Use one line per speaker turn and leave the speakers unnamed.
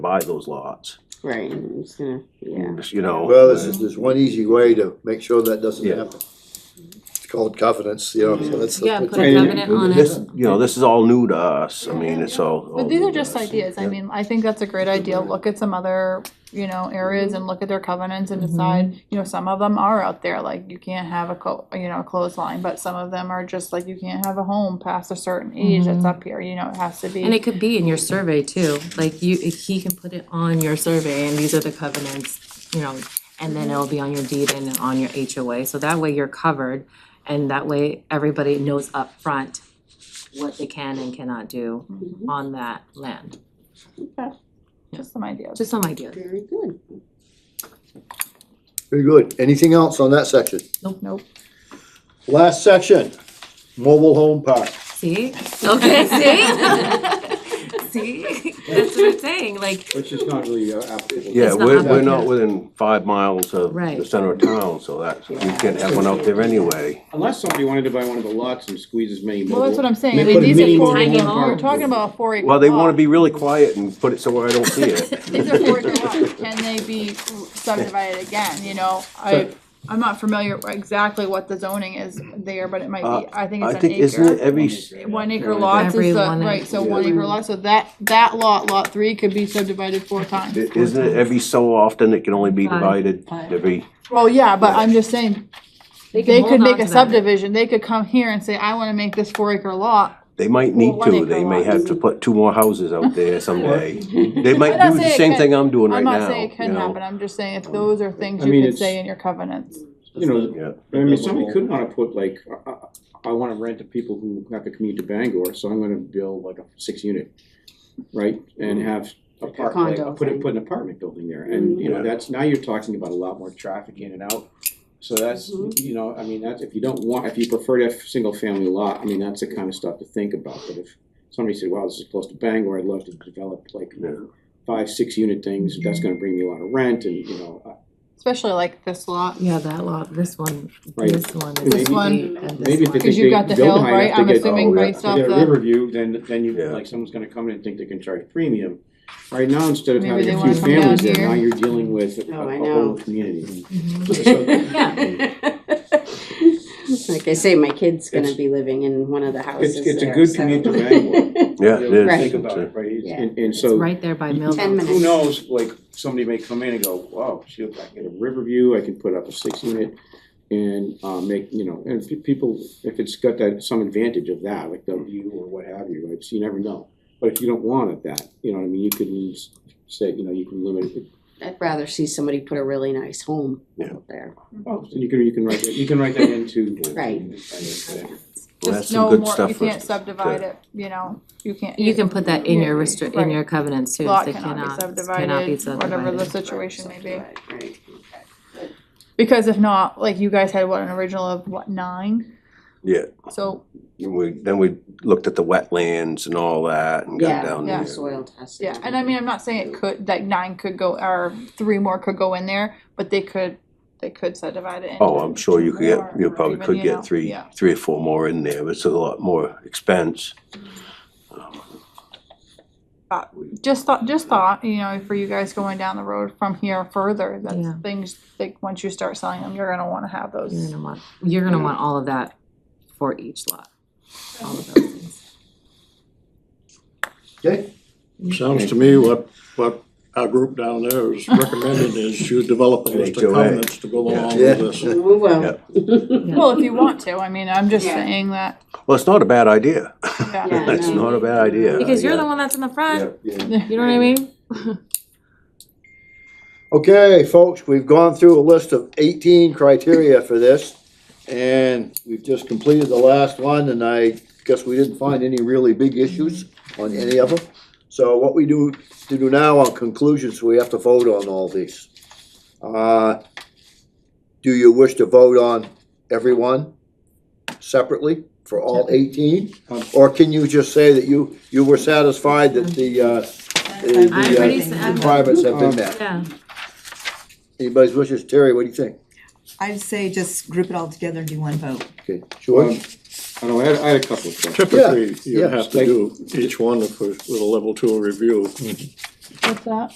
buy those lots,
Right, and I'm just gonna, yeah.
you know?
Well, there's, there's- there's one easy way to make sure that doesn't
Yeah.
happen. It's called covenants, you know, so that's.
Yeah, put a
And-
covenant on
This,
it.
you know, this is all new to us, I mean, it's all. all
But these
new
are
to
just
us.
ideas, I
Yeah.
mean, I think that's a great idea, look at some other, you know, areas and look at their covenants
Mm-hmm.
and decide, you know, some of them are out there, like, you can't have a co- you know, a clothesline, but some of them are just like, you can't have a home past a certain age
Mm-hmm.
that's up here, you know, it has to
And it
be.
could be in your survey too, like you, he can put it on your survey and these are the covenants, you know, and then it'll be on your deed and on your HOA, so that way you're covered. And that way, everybody knows up front what they can and cannot do
Mm-hmm.
on that land.
Just some ideas.
Just some idea.
Very good.
Very good. Anything else on that section?
Nope.
Last section, mobile home park.
See? Okay, see? See? That's what I'm saying, like,
Which is not really
uh,
applicable.
Yeah,
It's not
we're,
up
we're
there.
not within five miles of the
Right.
center of town, so that's, we can't have one out there anyway.
Unless somebody wanted to buy one of the lots and squeeze as many
Well, that's what
mobile.
I'm saying,
They
I mean,
put a
these are
mini
four,
mobile
Tiny
home park.
we're talking about a four acre
Well, they wanna
lot.
be really quiet and put it somewhere I don't see it.
These are four acre lots, can they be subdivided again, you know, I, I'm not familiar exactly what the zoning is there, but it might
Uh,
be, I think
I
it's an
think,
acre.
isn't it every, s-
One acre lots
Every
is the,
one
right,
acre.
so one acre lot, so that, that lot, lot three could be subdivided four times.
i- isn't it every so often it can only be
Five.
divided,
Five.
every,
Well, yeah, but I'm just saying,
they
they
can
could
hold on
make
to
a
that.
subdivision, they could come here and say, I wanna make this four acre lot.
they might
Well,
need
one
to,
acre
they may
lots.
have to put two more houses out there someday. They might
I'm not
do the
saying it
same
can't-
thing I'm doing right
I'm
now, you know?
not saying it can happen, I'm just saying if those are things
I
you
mean,
could
it's-
say in your covenants.
You know,
Yeah.
I mean, somebody could wanna put like, I, I, I wanna rent to people who have to commute to Bangor, so I'm gonna build like a six unit. Right, and have apart,
condo
like, put
thing.
it, put an apartment building there, and you
Yeah.
know, that's, now you're talking about a lot more traffic in and out. So that's,
Mhm.
you know, I mean, that's, if you don't want, if you prefer to have single family lot, I mean, that's the kind of stuff to think about, but if. Somebody said, wow, this is close to Bangor, I'd love to develop like
Yeah.
five, six unit things, that's gonna bring me a lot of rent and, you know, I-
Especially like this lot,
Yeah, that lot, this one,
Right.
this one.
Maybe-
this
one,
and this
Maybe if
one.
they think
Because you've
they
got the
build
hill,
high
right?
enough to
I'm
get-
assuming
oh, yeah,
based
to
off
get
the-
a Riverview, then, then you,
Yeah.
like, someone's gonna come in and think they can charge premium. Right now, instead of
Maybe
having
they
a few
wanna come down
families there,
here.
now you're dealing with a
Oh, I
a
know.
whole community.
Mm-hmm.
Like I say, my kid's gonna
It's-
be living in one of the houses
it's a
there,
good
so-
commute to Bangor.
Yeah, it is.
Think about it, right? It's-
Yeah.
And, and
It's
so,
right there by
Ten
Millville.
minutes.
who knows, like, somebody may come in and go, wow, shoot, I can get a Riverview, I can put up a six unit. And, uh, make, you know, and if people, if it's got that, some advantage of that, like the view or what have you, right, so you never know. But if you don't want it that, you know what I mean, you could use, say, you know, you can limit it,
I'd rather see somebody put a really nice home
Yeah.
there.
oh, so you can, you can write that, you can write that into.
Right.
Well,
just
that's some
no
good
more,
stuff
you
for us
can't
to-
subdivide it, you know, you can't.
You can put that in your
Yeah,
restrict, in
right.
your covenants too,
Lot
they
cannot
cannot, cannot be
be subdivided,
subdivided.
whatever the situation may be.
Right, right.
Because if not, like you guys had what, an original of what, nine?
Yeah.
So,
We, then we looked at the wetlands and all that and got
Yeah,
down
yeah.
there.
Soil testing.
yeah, and I mean, I'm not saying it could, like nine could go, or three more could go in there, but they could, they could subdivide it into.
Oh, I'm sure you could
more,
get, you
or
probably
even,
could
you know,
get three,
yeah.
three or four more in there, but it's a lot more expense.
Just thought, just thought, you know, for you guys going down the road from here further,
Yeah.
that's things, like, once you start selling them, you're gonna wanna have
You're
those.
gonna want, you're gonna want all of that for each lot, all of those things.
Okay,
Sounds to me what, what our group down there is recommending is you develop a list
HOA.
of comments to go along
Yeah.
with this.
We will.
Yeah.
Well, if you want to, I mean, I'm just
Yeah.
saying that,
Well, it's not a bad idea.
yeah,
Yeah.
It's
no.
not a bad idea.
Because you're
yeah.
the one that's in the front,
Yeah,
you know what I mean?
Okay, folks, we've gone through a list of eighteen criteria for this. And we've just completed the last one and I guess we didn't find any really big issues on any of them. So what we do, to do now on conclusions, we have to vote on all these. Uh, Do you wish to vote on everyone separately for all eighteen? Or can you just say that you, you were satisfied that the, uh, the-
I already said-
the uh, requirements have been met?
Yeah,
Anybody's wishes, Terry, what do you think?
I'd say just group it all together and do one vote.
Okay,
Um,
George?
I don't know, I had, I had a couple of questions.
Yeah,
Typically, you
yeah.
have to do each one with a level two review.
what's that?